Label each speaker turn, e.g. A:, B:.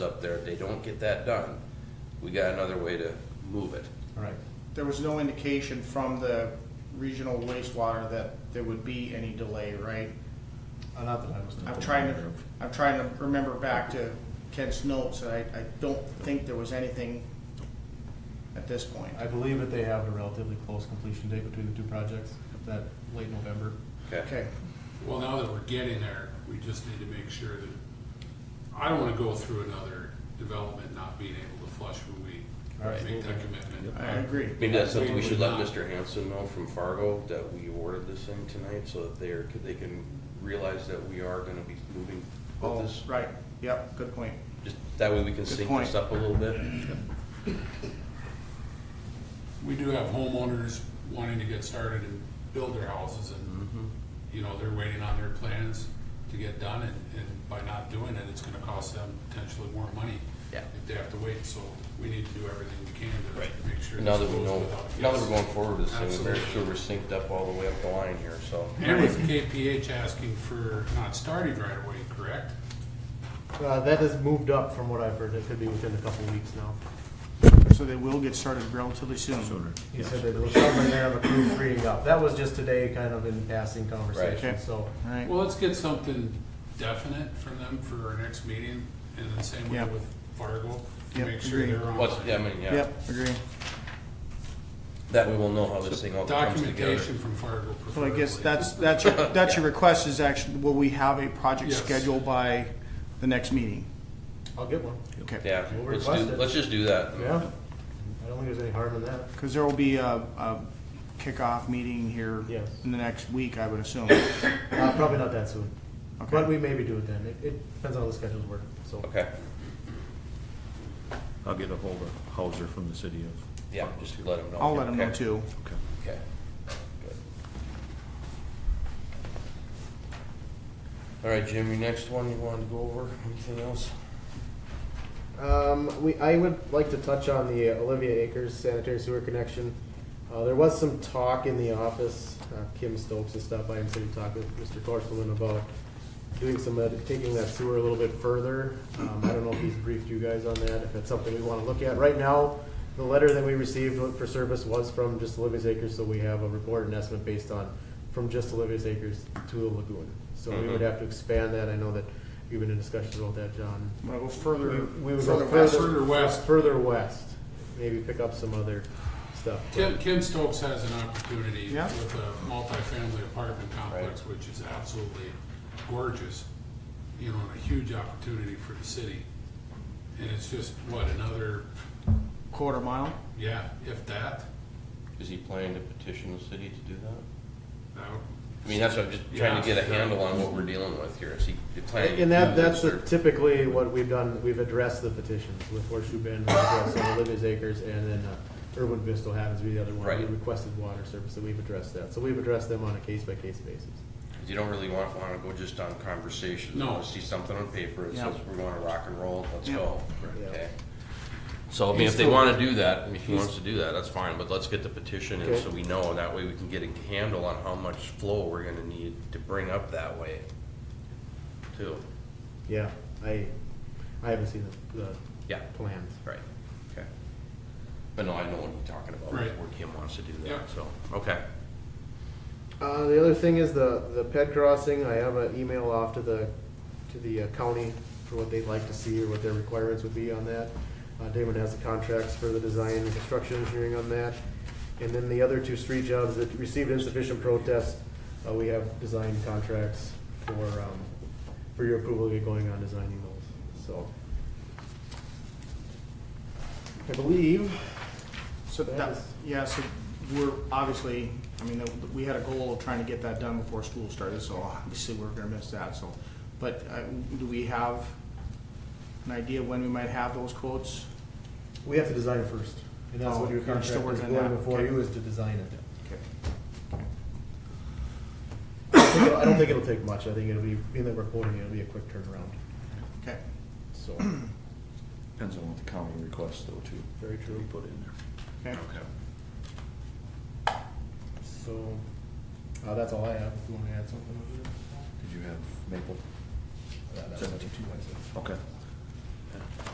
A: up there, if they don't get that done, we got another way to move it.
B: Right.
C: There was no indication from the regional wastewater that there would be any delay, right?
B: Uh, Not that I was.
C: I'm trying to, I'm trying to remember back to Kent's notes, and I, I don't think there was anything at this point.
B: I believe that they have a relatively close completion date between the two projects, that late November.
C: Okay,
D: Well, now that we're getting there, we just need to make sure that, I don't wanna go through another development not being able to flush when we
B: Absolutely.
D: make that commitment.
C: I agree.
A: Maybe that's something we should let
D: Not-
A: Mr. Hanson know from Fargo, that we ordered this thing tonight, so that they're, they can realize that we are gonna be moving with
C: Oh,
A: this.
C: right, yep, good point.
A: Just, that way we can
C: Good
A: sync this
C: point.
A: up a little bit.
D: We do have homeowners wanting to get started and build their houses
A: Mm-hmm.
D: and, you know, they're waiting on their plans to get done and, and by not doing it, it's gonna cost them potentially more money.
A: Yeah.
D: If they have to wait, so we need to do everything we can to make sure.
A: Now
D: this
A: that we
D: goes
A: know,
D: without-
A: now that we're
D: Yes.
A: going forward with this thing, we better make sure
D: Absolutely.
A: we're synced up all the way up the line here, so.
D: And with KPH asking for not starting right away, correct?
B: Uh, that has moved up from what I've heard, it could be within a couple weeks now.
C: So they will get started relatively soon.
B: He said that it was somewhere there of approved freeing up, that was just today, kind of in passing
A: Right.
B: conversation,
C: Okay.
B: so.
C: Alright,
D: Well, let's get something definite from them for our next meeting, and the same way
C: Yeah.
D: with Fargo,
C: Yeah,
D: make sure
C: agree.
D: they're on.
A: What's, yeah, I mean, yeah,
C: yep, agree.
A: that we will know how this thing all comes together.
D: Documentation from Fargo
C: So I
D: preferably.
C: guess that's, that's your, that's your request is actually, will we have a project
D: Yes.
C: scheduled by the next meeting?
B: I'll get one.
C: Okay.
A: Yeah,
B: We'll
A: let's
B: request
A: do,
B: it.
A: let's just do that.
B: Yeah. I don't think there's any harm in that.
C: Because there will be a, a kickoff meeting here
B: Yes.
C: in the next week, I would assume.
B: Uh, probably not that soon.
C: Okay.
B: But we maybe do it then, it, it depends on how the schedules work, so.
A: Okay,
E: I'll get a hold of Hauser from the city of.
A: yeah, just let them know.
C: I'll let them know
A: Okay.
C: too.
E: Okay.
A: Okay. Good. All right, Jim, your next one you wanted to go over, anything else?
B: Um, we, I would like to touch on the Olivia Acres sanitary sewer connection. Uh, there was some talk in the office, uh, Kim Stokes and stuff, I am sitting talk with Mr. Torselman about doing some, of that- taking that sewer a little bit further. Um, I don't know if he's briefed you guys on that, if that's something we wanna look at. Right now, the letter that we received for service was from just Olivia's Acres, so we have a report and estimate based on, from just Olivia's Acres to the lagoon. So we would have to expand that, I know that you've been in discussions about that, John,
C: I'm gonna go
B: we
C: further,
B: we would
C: further
B: go
C: west.
D: Further
B: further
D: west.
B: west, further west, maybe pick up some other stuff.
D: Tim, Kim Stokes has an opportunity
C: Yeah.
D: with a multifamily apartment complex,
A: Right.
D: which is absolutely gorgeous, you know, and a huge opportunity for the city. And it's just, what, another,
C: quarter mile.
D: yeah, if that,
A: Is he planning to petition the city to do that?
D: that would
A: I mean, that's what I'm just trying to get a
D: Yeah, yeah.
A: handle on what we're dealing with here, is he planning? to
B: And that,
A: do
B: that's
A: this, or-
B: typically what we've done, we've addressed the petitions with Horseshoe Bend, we've addressed some Olivia's Acres, and then uh, Irwin Vista happens to be the other one. We
A: Right.
B: requested water service, and we've addressed that, so we've addressed them on a case-by-case basis.
A: You don't really want, wanna go just on conversations.
D: No.
A: You wanna See something on paper, it
C: Yeah.
A: says we wanna rock and roll, let's
C: Yeah.
A: go.
B: Yeah.
A: Okay. So, I mean, if they wanna do that, if he wants to do that, that's fine, but let's get the petition in
B: Okay.
A: so we know, that way we can get a handle on how much flow we're gonna need to bring up that way. Too,
B: Yeah, I, I haven't seen the, the
A: yeah,
B: plans.
A: right, okay. But no, I know what you're talking about,
D: Right.
A: where Kim wants to do
D: Yeah.
A: that, so, okay.
B: Uh, the other thing is the, the ped crossing, I have an email off to the, to the uh, county for what they'd like to see or what their requirements would be on that. Uh, Damon has the contracts for the design and construction engineering on that. And then the other two street jobs that received insufficient protest, uh, we have design contracts for, um, for your approval to get going on designing those, so. I believe,
C: So
B: That
C: that,
B: is-
C: yeah, so we're obviously, I mean, we had a goal of trying to get that done before school started, so obviously we're gonna miss that, so. But, uh, do we have an idea when we might have those quotes?
B: we have to design first, and that's what
C: Oh,
B: your
C: you're
B: contract
C: still
B: is
C: working on
B: going
C: that,
B: before
C: okay.
B: you is to design it.
C: Okay.
B: I think it'll- I don't think it'll take much. I think it'll be, being that we're quoting, it'll be a quick turnaround.
C: Okay,
B: So,
E: Depends on what the county requests though too.
B: very true.
E: We put in there.
C: okay,
B: So, uh, that's all I have. If you want to add something over there.
E: Did you have Maple?
B: That- that was
E: Seventeen.
B: two, I said.
E: Okay.